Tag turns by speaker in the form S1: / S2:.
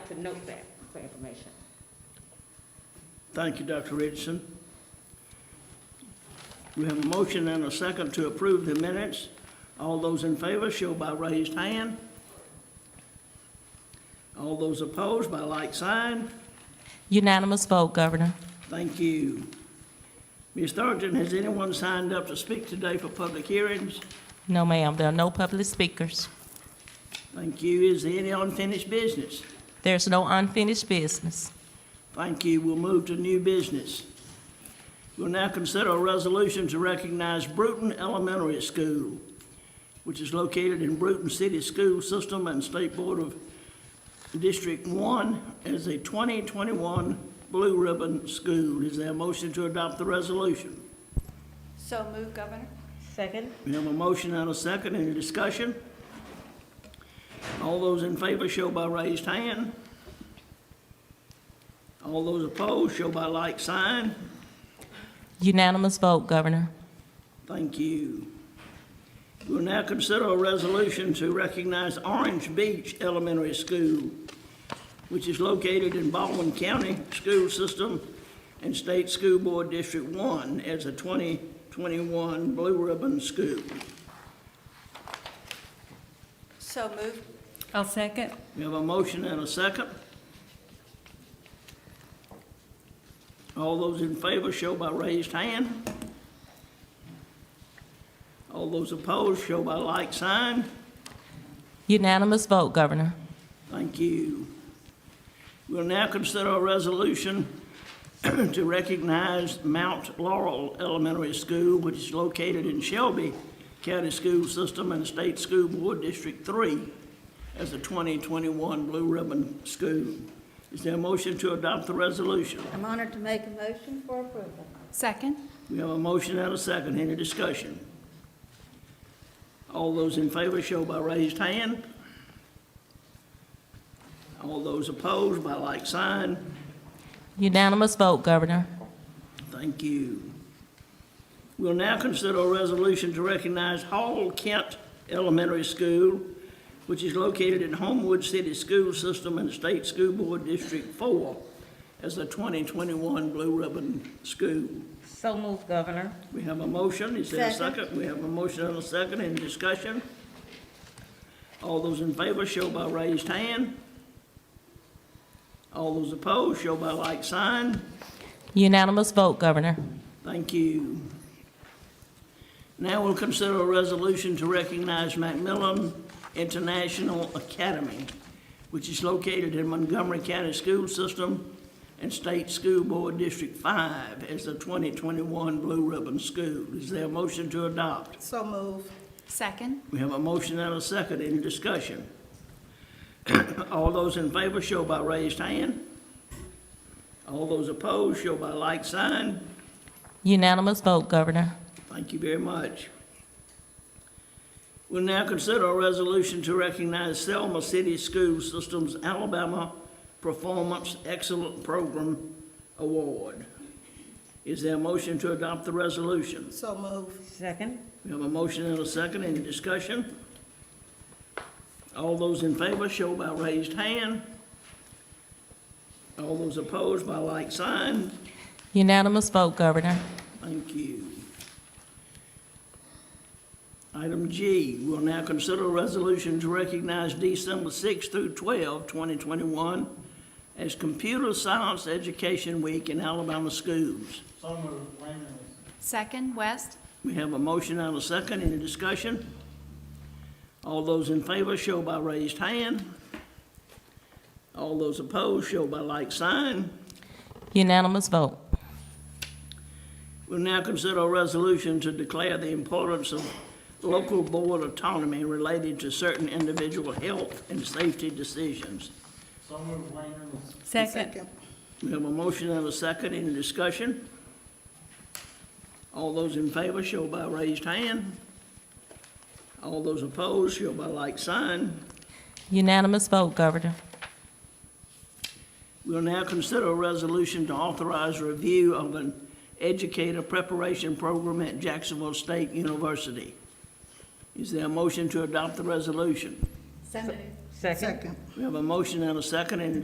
S1: to note that for information.
S2: Thank you, Dr. Richardson. We have a motion and a second to approve the minutes. All those in favor show by raised hand. All those opposed by like sign.
S3: Unanimous vote, Governor.
S2: Thank you. Ms. Thornton, has anyone signed up to speak today for public hearings?
S3: No, ma'am, there are no public speakers.
S2: Thank you. Is there any unfinished business?
S3: There's no unfinished business.
S2: Thank you. We'll move to new business. We'll now consider a resolution to recognize Bruton Elementary School, which is located in Bruton City School System and State Board of District One as a 2021 Blue Ribbon School. Is there a motion to adopt the resolution?
S4: So move, Governor.
S1: Second?
S2: We have a motion and a second. Any discussion? All those in favor show by raised hand. All those opposed show by like sign.
S3: Unanimous vote, Governor.
S2: Thank you. We'll now consider a resolution to recognize Orange Beach Elementary School, which is located in Baldwin County School System and State School Board District One as a 2021 Blue Ribbon School.
S4: So move.
S5: I'll second.
S2: We have a motion and a second. All those in favor show by raised hand. All those opposed show by like sign.
S3: Unanimous vote, Governor.
S2: Thank you. We'll now consider a resolution to recognize Mount Laurel Elementary School, which is located in Shelby County School System and State School Board District Three as a 2021 Blue Ribbon School. Is there a motion to adopt the resolution?
S6: I'm honored to make a motion for approval.
S5: Second?
S2: We have a motion and a second. Any discussion? All those in favor show by raised hand. All those opposed by like sign.
S3: Unanimous vote, Governor.
S2: Thank you. We'll now consider a resolution to recognize Hall Kent Elementary School, which is located in Homewood City School System and State School Board District Four as the 2021 Blue Ribbon School.
S1: So moved, Governor.
S2: We have a motion, is there a
S6: Second.
S2: second? We have a motion and a second, any discussion? All those in favor show by raised hand. All those opposed show by like sign.
S3: Unanimous vote, Governor.
S2: Thank you. Now we'll consider a resolution to recognize Macmillan International Academy, which is located in Montgomery County School System and State School Board District Five as the 2021 Blue Ribbon School. Is there a motion to adopt?
S6: So move.
S5: Second?
S2: We have a motion and a second. Any discussion? All those in favor show by raised hand. All those opposed show by like sign.
S3: Unanimous vote, Governor.
S2: Thank you very much. We'll now consider a resolution to recognize Selma City School System's Alabama Performance Excellent Program Award. Is there a motion to adopt the resolution?
S6: So move.
S1: Second?
S2: We have a motion and a second. Any discussion? All those in favor show by raised hand. All those opposed by like sign.
S3: Unanimous vote, Governor.
S2: Thank you. Item G, we'll now consider a resolution to recognize December 6 through 12, 2021 as Computer Science Education Week in Alabama schools.
S7: So moved, Wayman.
S5: Second, West?
S2: We have a motion and a second, any discussion? All those in favor show by raised hand. All those opposed show by like sign.
S3: Unanimous vote.
S2: We'll now consider a resolution to declare the importance of local board autonomy related to certain individual health and safety decisions.
S7: So moved, Wayman.
S5: Second.
S2: We have a motion and a second, any discussion? All those in favor show by raised hand. All those opposed show by like sign.
S3: Unanimous vote, Governor.
S2: We'll now consider a resolution to authorize review of an educator preparation program at Jacksonville State University. Is there a motion to adopt the resolution?
S6: So move.
S1: Second?
S2: We have a motion and a second. Any